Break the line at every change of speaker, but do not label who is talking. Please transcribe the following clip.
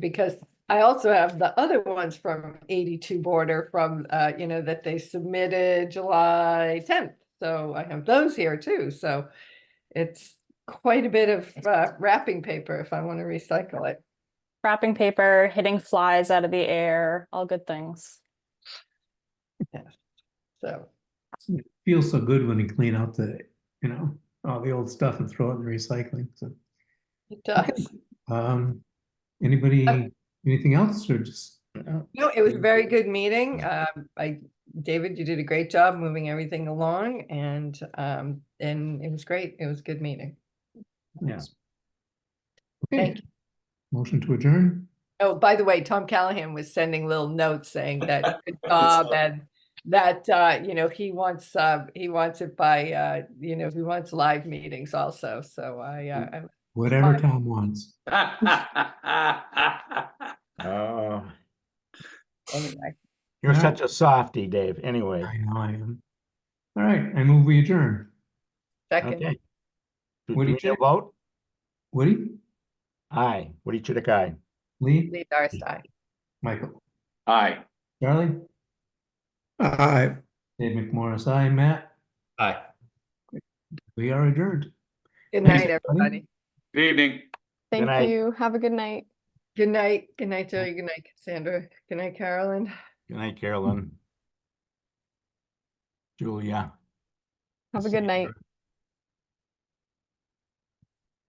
Because I also have the other ones from eighty-two border from, uh, you know, that they submitted July tenth. So I have those here too, so it's quite a bit of uh, wrapping paper if I want to recycle it.
Wrapping paper, hitting flies out of the air, all good things.
So,
feels so good when we clean out the, you know, all the old stuff and throw it in the recycling, so.
it does.
Um, anybody, anything else or just? uh,
Oh. No, it was a very good meeting. Um, I, David, you did a great job moving everything along and, um, and it was great. It was a good meeting.
Yeah.
Thank
Okay. Motion to adjourn?
Oh, by the way, Tom Callahan was sending little notes saying that good job
saw that.
and that, uh, you know, he wants, uh, he wants it by, uh, you know, he wants live meetings also. So I, uh, I-
Whatever
Fine.
Tom wants.
Oh,
anyway.
you're
Yeah.
such a softy, Dave. Anyway,
I know I am. All right, I move we adjourn.
Second,
okay. Do do
Woody
we need a
Chitik?
vote?
Woody,
Aye. Woody Chitik, aye.
Lee,
Lee Darcey.
Michael,
Aye.
Charlie,
Aye.
Dave McMorris, I, Matt,
Aye.
we are adjourned.
Good
Thanks,
night,
everybody.
everybody.
Good evening.
Thank
night.
you. Have a good night.
Good night. Good night, Joey. Good night, Cassandra. Good night, Carolyn.
Good night, Carolyn. Julia.
Have a good night.
Cassandra.